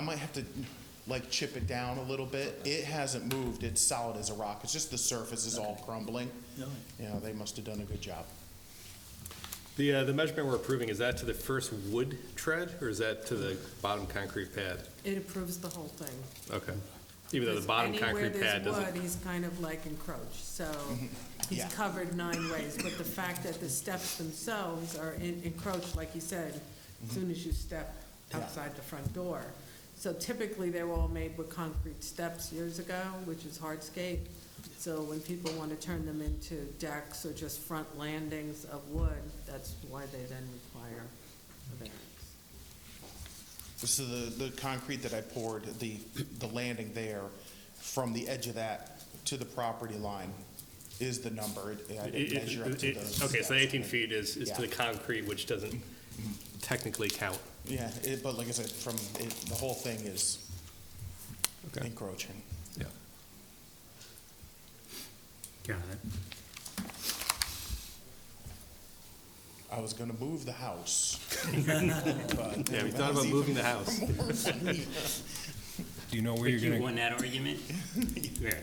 I might have to like chip it down a little bit. It hasn't moved. It's solid as a rock. It's just the surface is all crumbling. You know, they must have done a good job. The, uh, the measurement we're approving, is that to the first wood tread, or is that to the bottom concrete pad? It approves the whole thing. Okay. Even though the bottom concrete pad Anywhere there's doesn't, wood, he's kind of like encroached, so he's Yeah. covered nine ways. But the fact that the steps themselves are en- encroached, like you said, as soon as you step outside the front door. So typically, they were all made with concrete steps years ago, which is hardscape. So when people want to turn them into decks or just front landings of wood, that's why they then require a variance. So the, the concrete that I poured, the, the landing there, from the edge of that to the property line is the number. It- I it- didn't measure up it- to it- those okay, so steps. 18 feet is, is to the Yeah. concrete, which doesn't technically count. Yeah, it, but like I said, from, it, the whole thing is encroaching. Yeah. Got it. I was gonna move the house. Yeah, we thought about moving the house. Do you know where you're You gonna, won that argument? Yeah.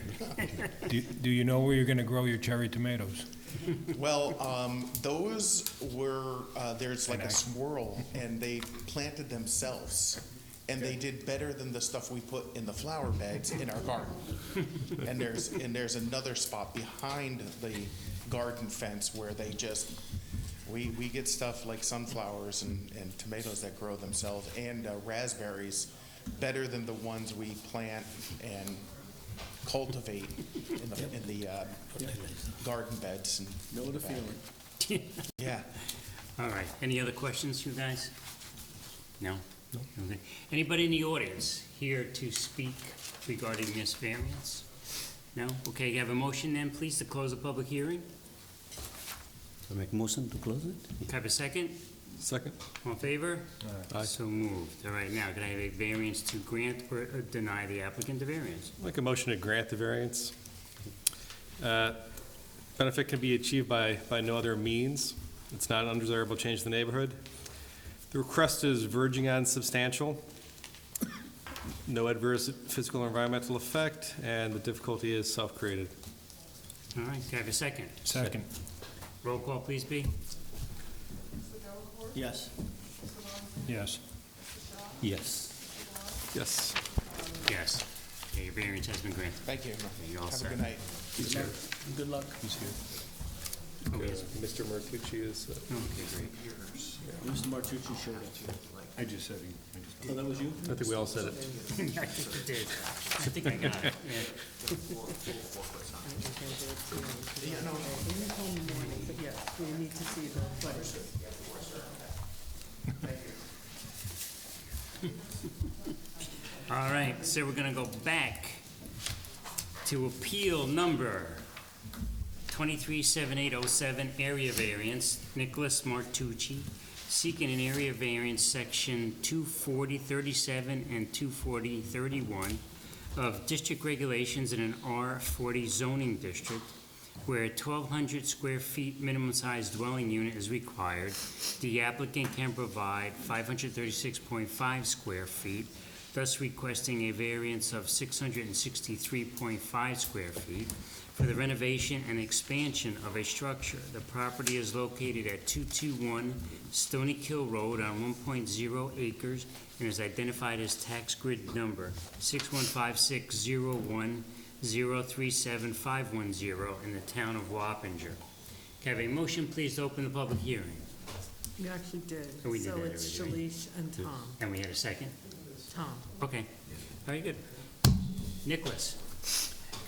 do do you know where you're gonna grow your cherry tomatoes? Well, um, those were, uh, there's like a swirl, and they planted themselves. And they did better than the stuff we put in the flower beds in our garden. And there's, and there's another spot behind the garden fence where they just, we, we get stuff like sunflowers and, and tomatoes that grow themselves and uh, raspberries, better than the ones we plant and cultivate in the, in the, uh, garden beds and Know the feeling. yeah. All right, any other questions, you guys? No? Okay. Anybody in the audience here to speak regarding this variance? No? Okay, you have a motion then, please, to close the public hearing? I make motion to close it? Can I Have a second? Second. All in favor? Aye. So moved. All right, now, can I have a variance to grant or uh, deny the applicant the variance? Make a motion to grant the variance. Uh, Benefit can be achieved by, by no other means. It's not an undesirable change to the neighborhood. The request is verging on substantial. No adverse physical or environmental effect, and the difficulty is self-created. All right, can I have a second? Second. Roll call, please, B. Yes. Yes. Yes. Yes. Yes. Okay, your variance has been granted. Thank you. You're all Have set. a good night. Good luck. Good luck. Okay, so- Mr. Martucci is, okay, great. Mr. uh, Martucci showed up. I just said he Oh, that was you? I think we all said it. I think you did. I think I got it. Yeah. In the whole morning, but yes, we need to see the footage. All right, so we're gonna go back to appeal number 237807, area variance, Nicholas Martucci, seeking an area variance section 24037 and 24031 of district regulations in an R40 zoning district where a 1,200 square feet minimum size dwelling unit is required. The applicant can provide 536.5 square feet thus requesting a variance of 663.5 square feet for the renovation and expansion of a structure. The property is located at 221 Stony Kill Road on 1.0 acres and is identified as tax grid number 6156010375110 in the town of Wappinger. Can I have a motion, please, to open the public hearing? We actually did. Oh, we did So that it's already, Shalish and Tom. And we had a second? Tom, Okay, very good. Nicholas,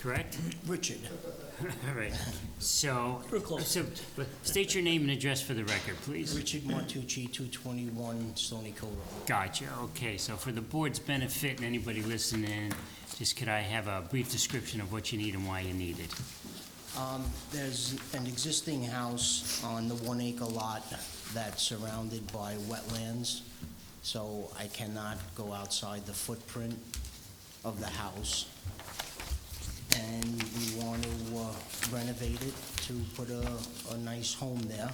correct? Richard. All right, so, We're close. so, but state your name and address for the record, please. Richard Martucci, 221 Stony Cove Road. Gotcha, okay, so for the board's benefit and anybody listening, just could I have a brief description of what you need and why you need it? Um, There's an existing house on the one-acre lot that's surrounded by wetlands, so I cannot go outside the footprint of the house. And we want to uh, renovate it to put a, a nice home there.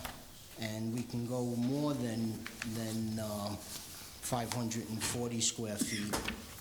And we can go more than, than uh, 540 square feet